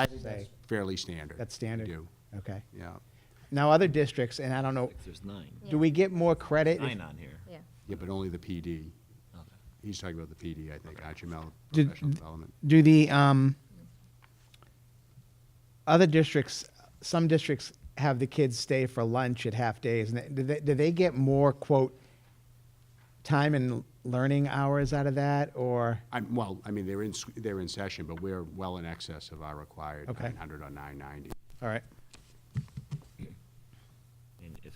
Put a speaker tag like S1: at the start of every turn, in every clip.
S1: I'd
S2: That's
S1: say,
S2: fairly standard.
S1: that's standard?
S2: We do,
S1: Okay.
S2: yeah.
S1: Now, other districts, and I don't know,
S3: There's nine,
S1: do we get more credit? if-
S3: nine on here.
S4: Yeah.
S2: Yeah, but only the PD.
S3: Okay.
S2: He's talking about the PD, I think, Archimel
S1: Did-
S2: Professional Development.
S1: Do the, um, other districts, some districts have the kids stay for lunch at half days, and they- do they, do they get more, quote, time and learning hours out of that, or,
S2: I'm, well, I mean, they're in, s- they're in session, but we're well in excess of our required
S1: Okay.
S2: 900 or 990.
S1: all right?
S3: And if,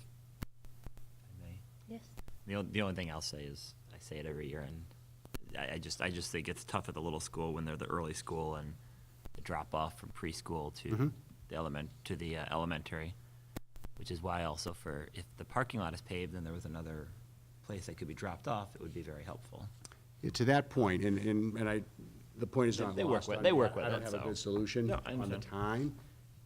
S3: I may.
S4: Yes.
S3: The only, the only thing I'll say is, I say it every year, and I, I just, I just think it's tough at the little school when they're the early school and the drop-off from preschool to the element, to the uh, elementary, which is why also for, if the parking lot is paved and there was another place that could be dropped off, it would be very helpful.
S2: Yeah, To that point, and, and and I, the point is
S3: They-
S2: not
S3: they work
S2: lost
S3: with-
S2: on
S3: they
S2: me.
S3: work
S2: I-
S3: with
S2: I don't
S3: it,
S2: have a
S3: so-
S2: good solution
S3: No, I
S2: on the
S3: understand.
S2: time.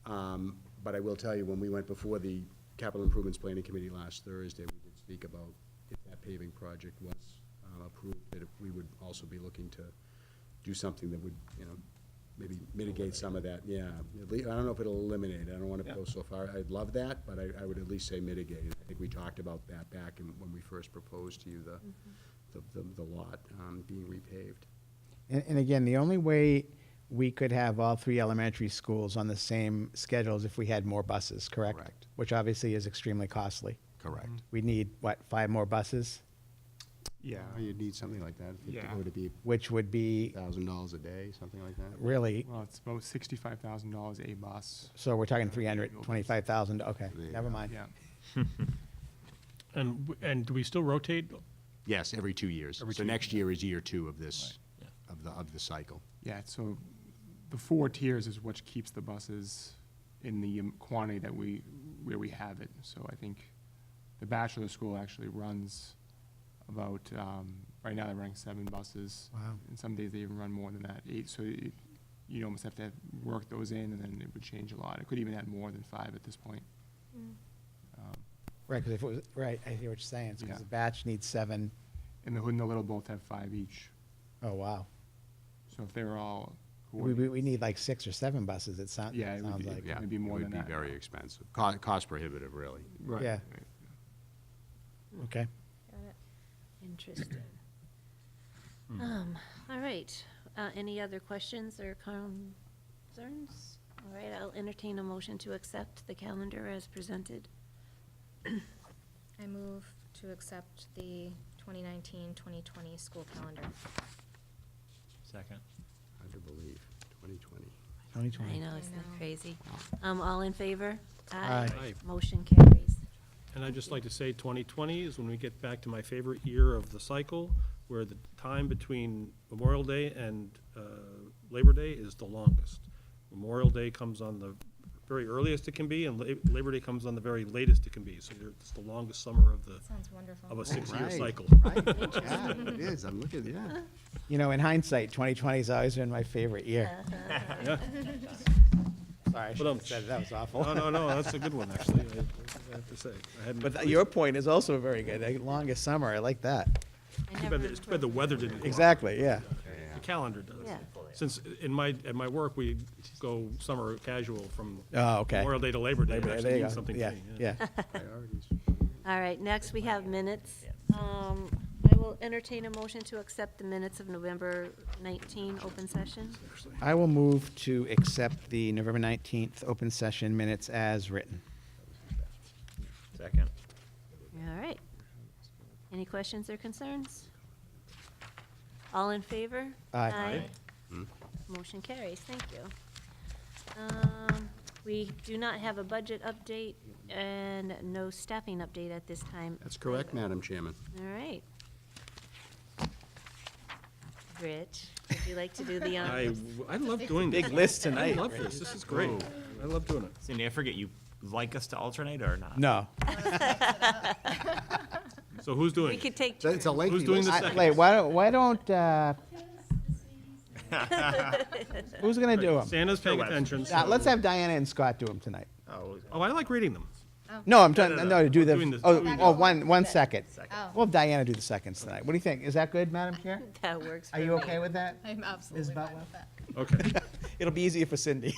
S2: Um, But I will tell you, when we went before the Capital Improvements Planning Committee last Thursday, we did speak about if that paving project was um, approved, that we would also be looking to do something that would, you know, maybe mitigate some of that, yeah. At lea- I don't know if it'll eliminate, it. I don't want to go so far. I'd love that, but I, I would at least say mitigate. it. I think we talked about that back in- when we first proposed to you the, the- the, the lot um, being repaved.
S1: And, and again, the only way we could have all three elementary schools on the same schedule is if we had more buses, correct?
S2: Correct.
S1: Which obviously is extremely costly.
S2: Correct.
S1: We need, what, five more buses,
S2: Yeah, you'd need something like that.
S5: Yeah.
S2: Would it be
S1: which would be
S2: thousand dollars a day, something like that?
S1: really,
S5: Well, it's about sixty-five thousand dollars a bus.
S1: so we're talking three hundred twenty-five thousand, okay,
S2: There you
S1: never
S2: go.
S1: mind.
S5: Yeah.
S6: And, w- and do we still rotate?
S2: Yes, every two years.
S6: Every
S2: So
S6: two
S2: next year is year two of this,
S3: Right,
S2: of the, of the cycle.
S5: Yeah, so the four tiers is what keeps the buses in the um, quantity that we, where we have it. So I think the bachelor school actually runs about, um, right now they're running seven buses.
S1: Wow.
S5: And some days they even run more than that, eight, so it, you almost have to have, work those in and then it would change a lot. It could even add more than five at this point.
S1: Right, because if it was, right, I hear what you're saying, it's
S5: Yeah.
S1: because the batch needs seven,
S5: And the hood and the little both have five each.
S1: oh, wow.
S5: So if they're all
S1: We, we,
S5: coordinated,
S1: we need like six or seven buses, it sounds,
S5: Yeah,
S1: it
S5: it would
S1: sounds
S5: be-
S1: like.
S5: yeah. Maybe more than
S2: It would
S5: that.
S2: be very expensive. Co- Cost prohibitive, really.
S5: right.
S1: yeah.
S5: right.
S1: Okay,
S4: Interesting. Um, all right, uh, any other questions or concerns? All right, I'll entertain a motion to accept the calendar as presented.
S7: I move to accept the 2019-2020 school calendar.
S3: second.
S2: Hard to believe, twenty twenty.
S1: twenty
S4: I
S1: twenty.
S4: know, isn't
S7: I know.
S4: that crazy? Um, all in favor?
S1: Aye.
S6: Aye.
S4: Motion carries.
S6: And I'd just like to say 2020 is when we get back to my favorite year of the cycle, where the time between Memorial Day and uh, Labor Day is the longest. Memorial Day comes on the very earliest it can be, and La- Labor Day comes on the very latest it can be. So you're- it's the longest summer of the,
S7: Sounds wonderful.
S6: of a six-year
S2: Right.
S6: cycle.
S2: Yeah, it is, I'm looking, yeah.
S1: You know, in hindsight, twenty twenty's always been my favorite year.
S6: Yeah.
S1: Sorry, I should have
S6: Ba-dum.
S1: said, that was awful.
S6: um, No, no, no, that's a good one, actually, I- I have to say. I hadn't-
S1: But th- your point is also very good. The longest summer, I like that.
S4: I
S6: Too
S4: never
S6: bad the- it's too bad the weather didn't. go up.
S1: Exactly, yeah.
S6: The calendar does.
S4: Yeah.
S6: Since in my, at my work, we go summer casual from
S1: Oh, okay.
S6: Memorial Day to Labor Day. It
S1: There
S6: actually
S1: you
S6: means
S1: go.
S6: something
S1: Yeah,
S6: to me,
S1: yeah.
S2: Priorities.
S4: All right, next we have minutes. Um, I will entertain a motion to accept the minutes of November 19 open session.
S1: I will move to accept the November 19th open session minutes as written.
S3: Second.
S4: All right. Any questions or concerns? All in favor?
S1: Aye.
S4: Motion carries, thank you. Um, We do not have a budget update and no staffing update at this time.
S2: That's correct, Madam Chairman.
S4: All right. Rich, would you like to do the
S6: I,
S4: honors?
S6: w- I love doing this.
S1: Big list
S6: I
S1: tonight.
S6: love this, this is great. I love doing it.
S3: Cindy, I forget, you like us to alternate or not?
S1: No.
S6: So who's doing
S4: We
S6: it?
S4: could take,
S2: So It's a lengthy.
S6: Who's doing
S2: list.
S6: the
S2: I-
S6: second?
S1: Wait, why don't, why don't, uh, who's going to do them?
S6: Santa's paying
S3: Sure, Wes.
S6: attention. so-
S1: Let's have Diana and Scott do them tonight.
S3: Oh,
S6: Oh, I like reading them.
S1: No, I'm
S6: no,
S1: trying,
S6: no.
S1: no, to do
S6: We're doing
S1: the,
S6: this-
S1: oh,
S6: doing
S1: oh,
S6: this.
S1: one, one second.
S7: Oh.
S1: We'll have Diana do the seconds tonight. What do you think? Is that good, Madam Chair?
S4: that works for
S1: Are
S4: me.
S1: you okay with that?
S7: I'm absolutely
S1: Ms.
S7: fine
S1: Butler?
S7: with that.
S6: Okay.
S1: It'll be easier for Cindy.